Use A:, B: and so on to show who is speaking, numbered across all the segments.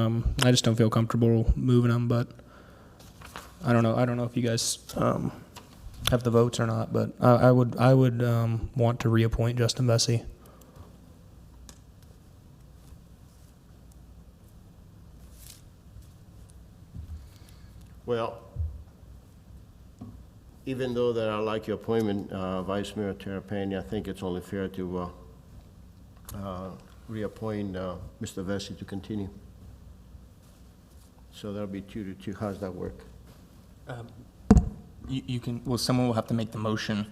A: Um, I just don't feel comfortable moving them, but I don't know, I don't know if you guys, um, have the votes or not, but I, I would, I would, um, want to reappoint Justin Bessie.
B: Well, even though that I like your appointment, uh, Vice Mayor Terapany, I think it's only fair to uh, uh, reappoint uh, Mr. Vesey to continue. So that'll be two to two. How's that work?
C: You, you can, well, someone will have to make the motion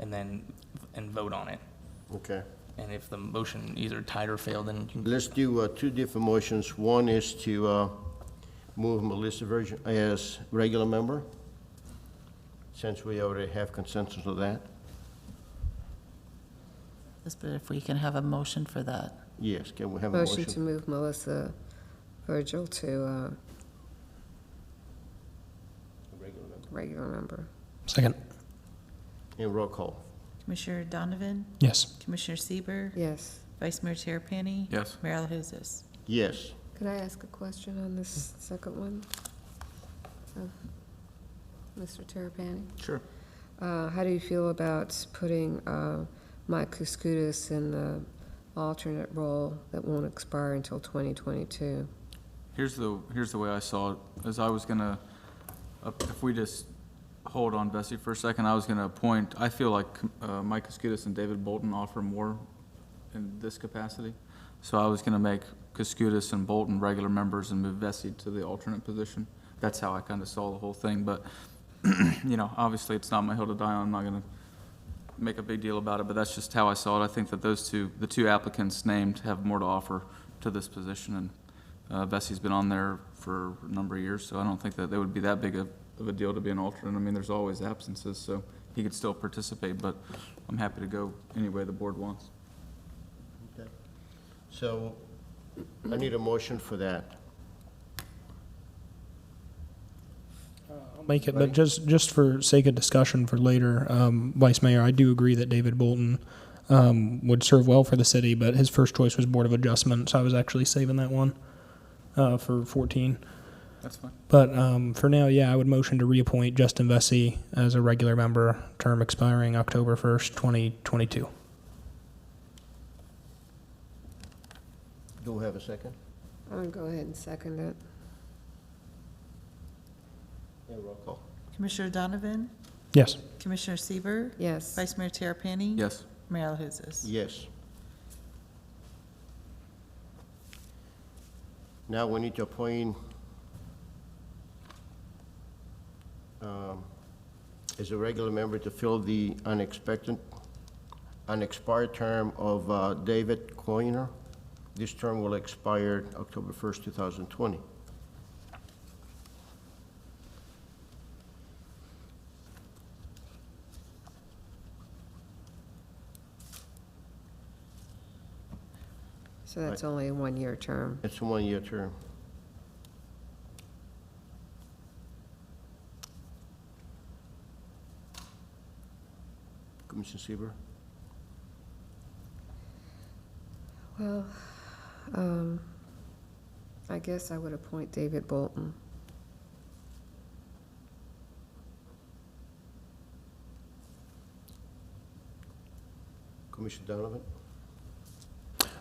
C: and then, and vote on it.
B: Okay.
C: And if the motion either tied or failed, then you can,
B: Let's do uh, two different motions. One is to uh, move Melissa Virgin as regular member, since we already have consensus of that.
D: Yes, but if we can have a motion for that.
B: Yes, can we have a
E: Motion to
B: motion?
E: move Melissa Virgil to uh, regular member.
A: Second.
B: And roll call.
F: Commissioner Donovan,
A: Yes.
F: Commissioner Sieber,
E: Yes.
F: Vice Mayor Terapany. Yes. Mayor Alahouzes.
B: Yes.
E: Could I ask a question on this second one? of Mr. Terrapini?
C: Sure.
E: Uh, How do you feel about putting uh, Mike Kuskudis in the alternate role that won't expire until 2022?
G: Here's the, here's the way I saw it, is I was gonna, uh, if we just hold on Bessie for a second, I was gonna appoint, I feel like uh, Mike Kuskudis and David Bolton offer more in this capacity. So I was gonna make Kuskudis and Bolton regular members and move Bessie to the alternate position. That's how I kinda saw the whole thing, but, you know, obviously, it's not my hill to die on, I'm not gonna make a big deal about it, but that's just how I saw it. I think that those two, the two applicants named have more to offer to this position, and uh, Bessie's been on there for a number of years, so I don't think that they would be that big of of a deal to be an alternate. I mean, there's always absences, so he could still participate, but I'm happy to go any way the board wants.
B: So I need a motion for that.
A: Make it, but just, just for sake of discussion for later, um, Vice Mayor, I do agree that David Bolton, um, would serve well for the city, but his first choice was Board of Adjustment, so I was actually saving that one, uh, for fourteen.
G: That's fine.
A: But um, for now, yeah, I would motion to reappoint Justin Vesey as a regular member, term expiring October 1st, 2022.
B: Do we have a second?
E: I'm going to go ahead and second it.
B: Yeah, roll call.
F: Commissioner Donovan,
A: Yes.
F: Commissioner Sieber,
E: Yes.
F: Vice Mayor Terapany.
G: Yes,
F: Mayor Alahouzes.
B: Yes. Now we need to appoint, um, as a regular member to fill the unexpected, unexpired term of uh, David Coiner. This term will expire October 1st, 2020.
E: So that's only a one-year term.
B: It's a one-year term. Commissioner Sieber.
E: Well, um, I guess I would appoint David Bolton.
B: Commissioner Donovan?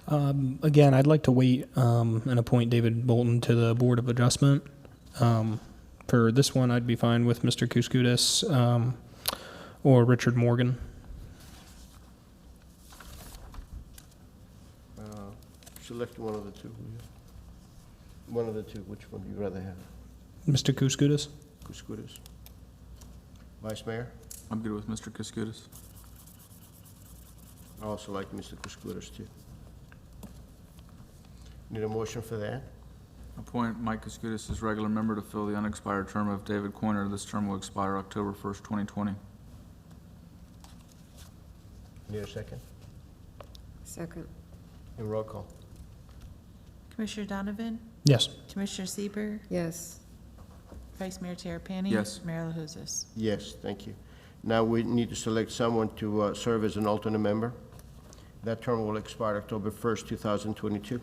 A: Um, again, I'd like to wait um, and appoint David Bolton to the Board of Adjustment. Um, for this one, I'd be fine with Mr. Kuskudis um, or Richard Morgan.
B: Uh, Select one of the two. will you? One of the two, which one do you rather have?
A: Mr. Kuskudis?
B: Kuskudis? Vice Mayor?
G: I'm good with Mr. Kuskudis.
B: I also like Mr. Kuskudis too. Need a motion for that?
G: Appoint Mike Kuskudis as regular member to fill the unexpired term of David Coiner. This term will expire October 1st, 2020.
B: Need a second?
E: Second,
B: And roll call.
F: Commissioner Donovan,
A: Yes.
F: Commissioner Sieber,
E: yes.
F: Vice Mayor Terapany.
G: Yes.
F: Mayor Alahouzes.
B: Yes, thank you. Now we need to select someone to uh, serve as an alternate member. That term will expire October 1st, 2022.